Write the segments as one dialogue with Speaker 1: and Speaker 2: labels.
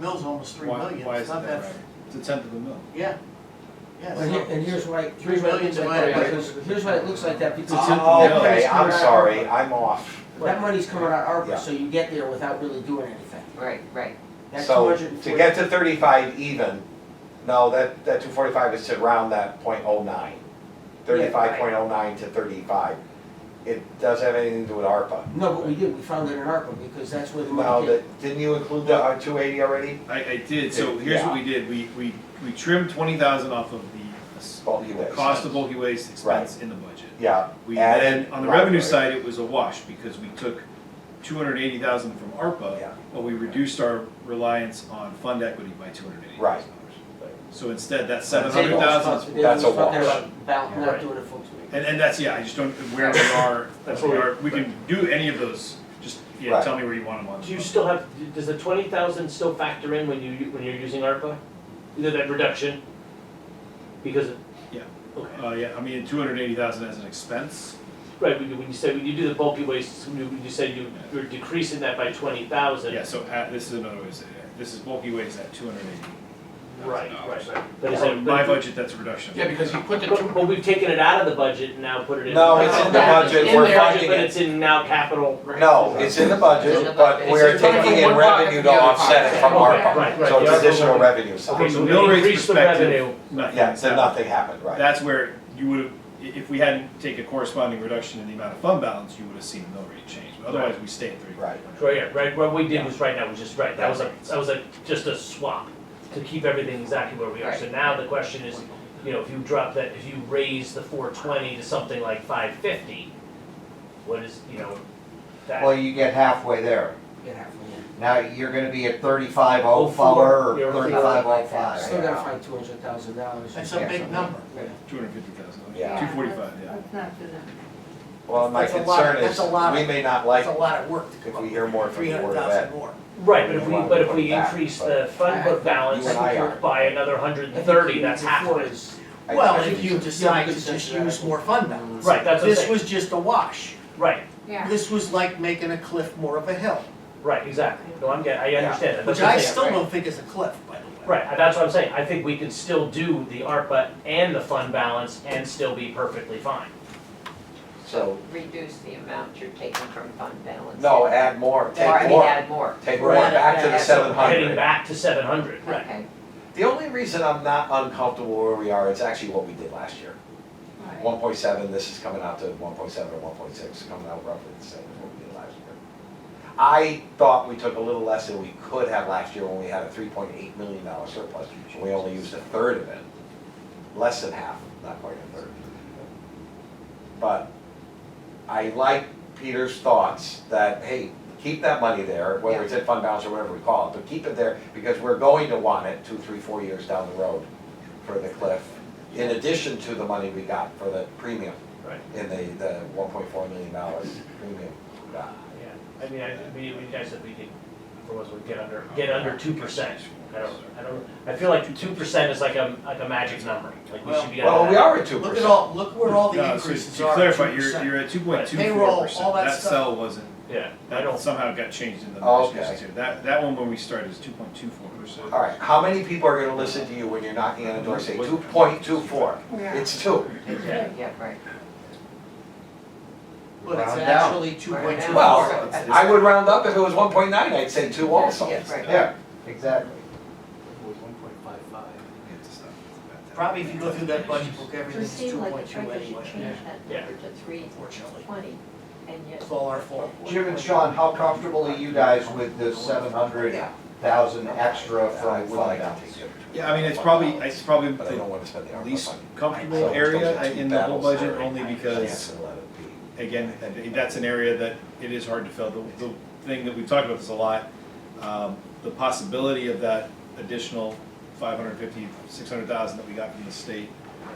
Speaker 1: mill's almost three
Speaker 2: Why-
Speaker 1: million,
Speaker 2: why
Speaker 1: it's
Speaker 2: isn't
Speaker 1: not
Speaker 2: that
Speaker 1: that,
Speaker 2: right? It's a tenth of a mil.
Speaker 1: yeah, yeah.
Speaker 3: Well, here- and here's why,
Speaker 1: Three
Speaker 3: here's why it
Speaker 1: million
Speaker 3: looks like that,
Speaker 1: divided by-
Speaker 3: because, here's why it looks like that, because.
Speaker 2: It's a-
Speaker 3: all that money's
Speaker 4: Oh, Okay, I'm
Speaker 3: coming out-
Speaker 4: sorry, I'm off.
Speaker 3: That money's coming out of
Speaker 4: Yeah.
Speaker 3: ARPA, so you get there without really doing anything.
Speaker 5: Right, right.
Speaker 3: That
Speaker 4: So
Speaker 3: 240
Speaker 4: to get to thirty-five even, no, that, that two forty-five is to round that point oh nine. Thirty-five point oh nine to thirty-five. It does have anything to do with ARPA.
Speaker 3: No, but we did, we found it in ARPA, because that's where the
Speaker 4: No,
Speaker 3: money came.
Speaker 4: that, didn't you include the uh, two eighty already?
Speaker 2: I, I did, so here's what we did, we, we, we trimmed twenty thousand off of the.
Speaker 4: Bulky
Speaker 2: the
Speaker 4: waste.
Speaker 2: Cost of bulky waste expense in the budget.
Speaker 4: Yeah.
Speaker 2: We
Speaker 4: added-
Speaker 2: then, on the
Speaker 4: right,
Speaker 2: revenue
Speaker 4: right.
Speaker 2: side, it was a wash, because we took two hundred eighty thousand from
Speaker 4: Yeah.
Speaker 2: ARPA, but we reduced our reliance on fund equity by two hundred eighty
Speaker 4: Right.
Speaker 2: thousand dollars. So instead, that seven
Speaker 3: Dave
Speaker 2: hundred
Speaker 3: was
Speaker 2: thousand
Speaker 3: talking- Dave
Speaker 4: that's
Speaker 3: was
Speaker 4: a
Speaker 3: talking
Speaker 4: wash.
Speaker 3: about About not
Speaker 2: Right.
Speaker 3: doing a full swing.
Speaker 2: And, and that's, yeah, I just don't, where we are,
Speaker 6: That's
Speaker 2: we
Speaker 6: what we-
Speaker 2: are, we can do any of those, just, yeah,
Speaker 4: Right.
Speaker 2: tell me where you want them on.
Speaker 6: Do you still have, does the twenty thousand still factor in when you, when you're using ARPA? Either that reduction? Because of.
Speaker 2: Yeah.
Speaker 6: Okay,
Speaker 2: Uh, yeah, I mean, two hundred eighty thousand as an expense,
Speaker 6: right, when you, when you say, when you do the bulky waste, when you, when you say you, you're decreasing that by twenty thousand.
Speaker 2: yeah, so at, this is another way to say it, this is bulky waste at two hundred eighty.
Speaker 6: Right, right, right. But is
Speaker 2: So
Speaker 6: that,
Speaker 2: my
Speaker 6: but,
Speaker 2: budget, that's a reduction.
Speaker 7: Yeah, because you put the two,
Speaker 6: but, but we've taken it out of the budget and now put it in.
Speaker 4: No, it's in the budget, we're
Speaker 6: It's in the budget,
Speaker 4: funding
Speaker 6: but
Speaker 4: it.
Speaker 6: it's in now capital.
Speaker 4: No, it's in the
Speaker 5: It's in the
Speaker 4: budget, but
Speaker 5: budget.
Speaker 4: we're
Speaker 7: It's in the
Speaker 4: taking
Speaker 7: budget.
Speaker 4: in
Speaker 7: One pocket
Speaker 4: revenue
Speaker 7: to
Speaker 4: to
Speaker 7: the other
Speaker 4: offset
Speaker 7: pocket.
Speaker 4: it from
Speaker 6: Okay,
Speaker 4: ARPA.
Speaker 6: right, right.
Speaker 4: So it's
Speaker 6: The ARPA
Speaker 4: additional
Speaker 6: one.
Speaker 4: revenue side.
Speaker 6: Okay,
Speaker 2: From
Speaker 6: so
Speaker 2: the
Speaker 6: we
Speaker 2: mill rate
Speaker 6: increased the
Speaker 2: perspective,
Speaker 6: revenue.
Speaker 2: Nothing.
Speaker 4: Yeah, so
Speaker 2: That-
Speaker 4: nothing happened, right?
Speaker 2: That's where you would have, if we hadn't taken a corresponding reduction in the amount of fund balance, you would have seen the mill rate change, but otherwise, we stay at three.
Speaker 4: Right.
Speaker 6: Right, yeah, right, what we did was right now, was just right, that was a, that was a, just a swap to keep everything exactly where we are. So now the question is, you know, if you drop that, if you raise the four twenty to something like five fifty, what is, you know,
Speaker 4: Well,
Speaker 6: that
Speaker 4: you get halfway there.
Speaker 3: Get halfway in.
Speaker 4: Now you're gonna be at thirty-five oh
Speaker 6: Oh,
Speaker 4: four
Speaker 6: four.
Speaker 4: or
Speaker 6: You're looking at
Speaker 4: thirty-five oh
Speaker 3: Still gotta
Speaker 4: five.
Speaker 3: find two hundred thousand dollars.
Speaker 1: That's a big number.
Speaker 2: Two hundred fifty thousand,
Speaker 4: Yeah.
Speaker 2: two forty-five, yeah.
Speaker 8: That's not good enough.
Speaker 4: Well, my
Speaker 1: That's a lot-
Speaker 4: concern is,
Speaker 1: that's a lot of-
Speaker 4: we may not like
Speaker 1: That's a lot of work to
Speaker 4: if
Speaker 1: come up
Speaker 4: we
Speaker 1: with,
Speaker 4: hear more from
Speaker 1: three
Speaker 4: the
Speaker 1: hundred
Speaker 4: board of
Speaker 1: thousand
Speaker 4: that.
Speaker 1: more.
Speaker 6: right, but if we,
Speaker 4: Well,
Speaker 6: but if
Speaker 4: put it
Speaker 6: we
Speaker 4: back,
Speaker 6: increase
Speaker 4: but-
Speaker 6: the fund
Speaker 3: I- I-
Speaker 6: book balance
Speaker 4: You and I are.
Speaker 6: by another hundred and thirty, that's halfway.
Speaker 4: I-
Speaker 1: Well,
Speaker 4: I
Speaker 1: if
Speaker 4: think
Speaker 1: you
Speaker 4: so.
Speaker 1: decide to just use more fund balance.
Speaker 6: Right, that's what I'm
Speaker 1: This
Speaker 6: saying,
Speaker 1: was just a wash.
Speaker 6: right,
Speaker 8: Yeah.
Speaker 1: This was like making a cliff more of a hill,
Speaker 6: right, exactly, no, I'm getting, I understand that, that's
Speaker 1: which
Speaker 6: what I'm
Speaker 1: I
Speaker 6: saying,
Speaker 1: still
Speaker 6: right.
Speaker 1: don't think is a cliff, by the way.
Speaker 6: Right, and that's what I'm saying, I think we can still do the ARPA and the fund balance and still be perfectly fine.
Speaker 4: So,
Speaker 5: Reduce the amount you're taking from fund balance.
Speaker 4: no, add
Speaker 5: Or
Speaker 4: more,
Speaker 5: I
Speaker 4: take
Speaker 5: mean,
Speaker 4: more,
Speaker 5: add more.
Speaker 4: take
Speaker 1: We're
Speaker 4: more,
Speaker 1: at it,
Speaker 4: back to
Speaker 1: yeah,
Speaker 4: the
Speaker 1: so
Speaker 4: seven
Speaker 6: Heading
Speaker 4: hundred.
Speaker 6: back to seven hundred, right?
Speaker 5: Okay.
Speaker 4: The only reason I'm not uncomfortable where we are, it's actually what we did last year.
Speaker 8: Right.
Speaker 4: One point seven, this is coming out to one point seven or one point six, coming out roughly the same as what we did last year. I thought we took a little less than we could have last year when we had a three point eight million dollar surplus, and we only used a third of it. Less than half, not quite a third. But I like Peter's thoughts that, hey, keep that money there, whether it's in fund balance or whatever we call it, but keep it there because we're going to want it two, three, four years down the road for the cliff, in addition to the money we got for the premium.
Speaker 6: Right.
Speaker 4: In the, the one point four million dollars premium we got.
Speaker 6: Yeah, I mean, I, we, we guys said we could, for once, we get under, get under two percent. I don't, I don't, I feel like two percent is like a, like a magic number, like we should be under that.
Speaker 4: Well, we are at two
Speaker 1: Look at
Speaker 4: percent.
Speaker 1: all, look where all the
Speaker 2: No, so
Speaker 1: increases
Speaker 2: to
Speaker 1: are, two
Speaker 2: clarify, you're,
Speaker 1: percent.
Speaker 2: you're at two point two
Speaker 1: Payroll,
Speaker 2: four
Speaker 1: all
Speaker 2: percent,
Speaker 1: that
Speaker 2: that
Speaker 1: stuff.
Speaker 2: cell wasn't,
Speaker 6: Yeah, I
Speaker 2: that
Speaker 6: don't,
Speaker 2: somehow got changed in the
Speaker 4: Oh, okay.
Speaker 2: negotiations here, that, that one when we started is two point two four percent.
Speaker 4: All right, how many people are gonna listen to you when you're knocking on the door saying two point two four?
Speaker 8: Yeah.
Speaker 4: It's two.
Speaker 6: yeah,
Speaker 5: Yeah, right.
Speaker 1: But it's
Speaker 4: Round down.
Speaker 1: actually two point two.
Speaker 4: Well, I would round up, if it was one point nine, I'd say two also.
Speaker 5: Yeah, right.
Speaker 4: Yeah, exactly.
Speaker 1: Probably if you go through that budget book,
Speaker 8: It
Speaker 1: everything's
Speaker 8: seemed
Speaker 1: two
Speaker 8: like
Speaker 1: point
Speaker 8: the
Speaker 1: two
Speaker 8: treasurer should
Speaker 1: anyway,
Speaker 8: change that
Speaker 6: Yeah.
Speaker 8: number to three
Speaker 1: unfortunately.
Speaker 8: twenty, and yet
Speaker 1: It's all our fault.
Speaker 9: Jim and Sean, how comfortable are you guys with the seven hundred thousand extra from
Speaker 4: I'd
Speaker 9: fund
Speaker 4: like to
Speaker 9: balance?
Speaker 4: take it.
Speaker 2: Yeah, I mean, it's probably, it's probably
Speaker 4: But I don't
Speaker 2: the
Speaker 4: wanna spend the ARPA
Speaker 2: least
Speaker 4: money.
Speaker 2: comfortable
Speaker 4: So it's
Speaker 2: area
Speaker 4: those are two
Speaker 2: in the whole
Speaker 4: battles
Speaker 2: budget,
Speaker 4: there.
Speaker 2: only because,
Speaker 4: Yes, and let it be.
Speaker 2: again, that- that's an area that it is hard to fill. The, the thing that we've talked about this a lot, um, the possibility of that additional five hundred fifty, six hundred thousand that we got from the state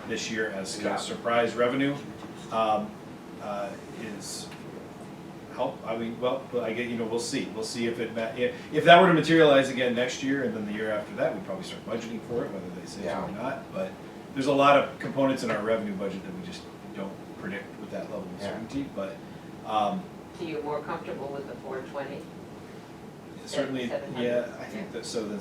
Speaker 2: this year as kind
Speaker 4: Yeah.
Speaker 2: of surprise revenue, um, uh, is help, I mean, well, but I get, you know, we'll see, we'll see if it, ma- if, if that were to materialize again next year, and then the year after that, we'd probably start budgeting for it, whether they say so
Speaker 4: Yeah.
Speaker 2: or not, but there's a lot of components in our revenue budget that we just don't predict with that level of
Speaker 4: Yeah.
Speaker 2: certainty, but, um,
Speaker 5: So you're more comfortable with the four twenty?
Speaker 2: certainly,
Speaker 5: Seven hundred.
Speaker 2: yeah, I think that, so then